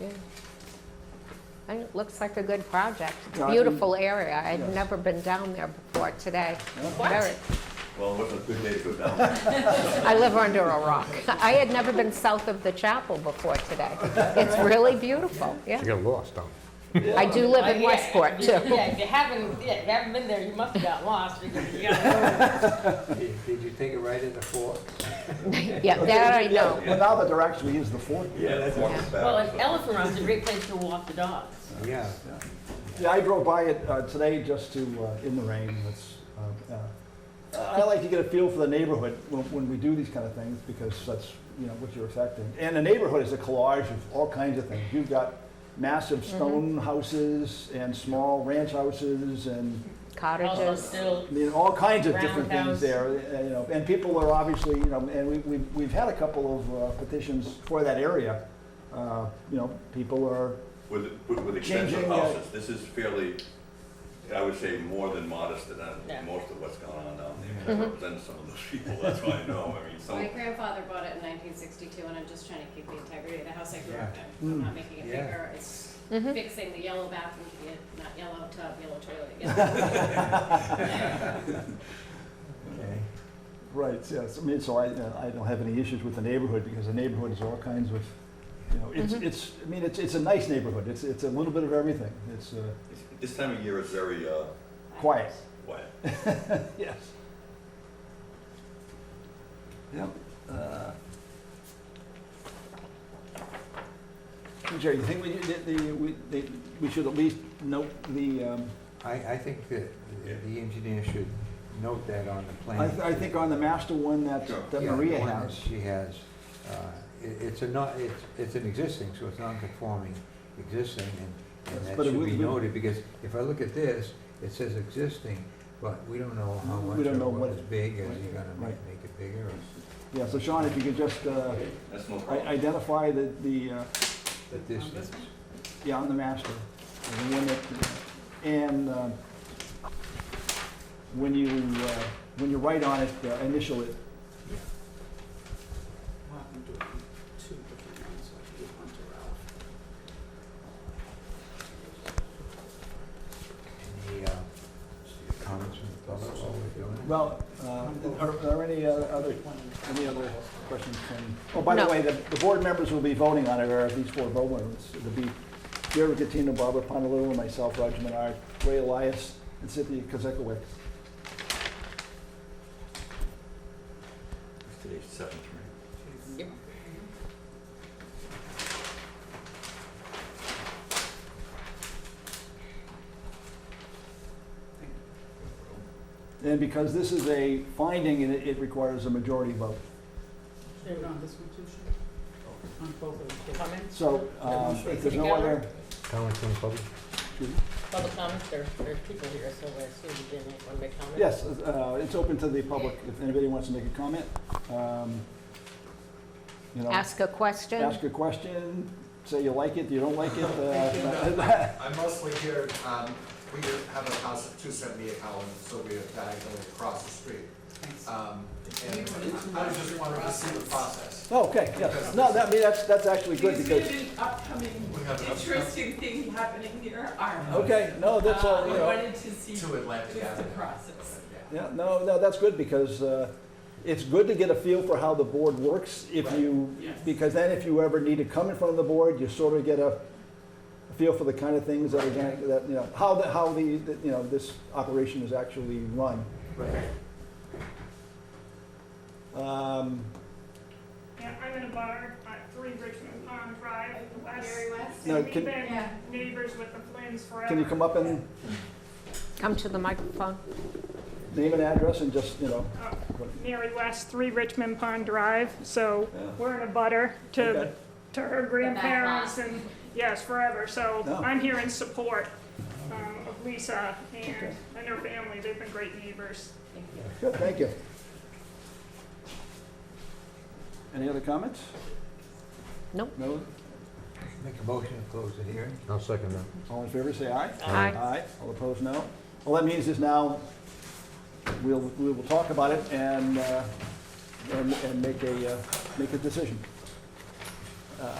Yeah. And it looks like a good project. It's Yeah, a I think- beautiful area. I'd Yes. never been down there before today. What? Very- Well, it wasn't a good day to go down there. I live under a rock. I had never been south of the chapel before today. It's really beautiful, yeah. You get lost, don't I do live in Yeah, Westport, if you- too. Yeah, if you haven't, yeah, if you haven't been there, you must have got lost. because you got- Did did you take a ride in the fork? Yeah, that I know. Well, now that there actually is the fort. Yeah, that's. Well, an elephant run's a great place to walk the dogs. Yeah. Yeah, I drove by it uh, today just to, uh, in the rain, it's, uh, uh, I like to get a feel for the neighborhood when, when we do these kind of things, because that's, you know, what you're affecting. And the neighborhood is a collage of all kinds of things. You've got massive Mm-hmm. stone houses and small ranch houses and, Also Cottages. still, I mean, all kinds of different Roundhouse. things there, uh, you know. And people are obviously, you know, and we, we've, we've had a couple of uh, petitions for that area. Uh, You know, people are, With, with- with expensive Changing, uh, houses, this is fairly, I would say, more than modest than uh, Yeah. Mm-hmm. most of what's going on down there. I represent some of those people, that's why I know, I mean, My some, grandfather bought it in nineteen sixty-two, and I'm just trying to keep the integrity of the house I grew up in. Yeah. I'm not making it Yeah. bigger, it's Mhm. fixing the yellow bathroom, to be a- not yellow tub, yellow toilet. yellow- Okay. Right, yes, I mean, so I, uh, I don't have any issues with the neighborhood, because the neighborhood is all kinds of, you know, it's, it's, I mean, it's, it's a nice neighborhood, it's, it's a little bit of everything, it's, uh, this time of year is very, uh, Quiet. quiet. yes. Yep. uh. Jerry, you think we, that the, we, they- we should at least note the, um, I, I think that Yeah. the engineer should note that on the plan. I, th- I think on the master one that, Sure. that Yeah, the Maria one that has. She has, uh, i- it's a not, it's, it's an existing, so it's non-conforming existing, and, Yes, and that but it should would- be would- noted, because if I look at this, it says existing, but we don't know how We much don't or know what what- is big, is he right, gonna make, right. make it bigger, or Yeah, so Sean, if you could just, uh, That's no i- problem. identify the, the, uh, the distance? Yeah, on the master. And the one that, and uh, when you, uh, when you write on it, uh, initial it. What happened to two different ones, I gave one to Ralph. Any, uh, comments from the public while we're doing it? Well, uh, are are there any uh, other, any other questions from? Oh, by the No. way, the, the board members will be voting on it, or these four vote winners. It'll be Jerry Catino, Barbara Pontalillo, myself, Roger Menard, Ray Elias, and Cynthia Kozekowicz. Today's seven three. Yep. And because this is a finding, it, it requires a majority vote. They were on this one too, Sean? On both of them. Comments, So, um, if there's no other, Comments from the public? public comments, there, there's people here, so I assume you didn't want to make comments. Yes, uh, it's open to the public, if anybody wants to make a comment. um, You know, Ask a question. ask a question, say you like it, you don't like it. uh, I'm mostly here, um, we have a house at two seventy-eight Howland, so we are diagonally across the street. Um, and I was just wanted to see the process. Oh, Okay, yes, no, that, I mean, that's, that's actually good because, We upcoming have an upcoming- interesting thing happening here are. okay, no, that's, Uh, all. I you know, wanted to see To Atlantic just the Avenue. process. Yeah. yeah, no, no, that's good because uh, it's good to get a feel for how the board works if Right. you, Yes. because then if you ever need to come in front of the board, you sort of get a feel for the kind of things that are going to, that, you know, how the, how the, you know, this operation is actually run. Right. Um, Yeah, I'm in a bar at Three Richmond Pond Drive West. Very west. No, And we've can- been Yeah. neighbors with the Flynn's forever. Can you come up and Come to the microphone. name an address and just, you know, Oh. Uh, Mary West, Three Richmond Pond Drive, so Yeah. we're in a butter Okay. to, to her grandparents lot. and, yes, forever. So No. I'm here in support um, of Lisa Okay. and, and her family. They've been great neighbors. good, thank you. Any other comments? Nope. No? Make a motion to close the hearing? you? I'll second that. All in favor, say aye. Aye. Aye. All opposed, no. All that means is now we'll, we will talk about it and, uh, and, and make a, uh, make a decision. Uh,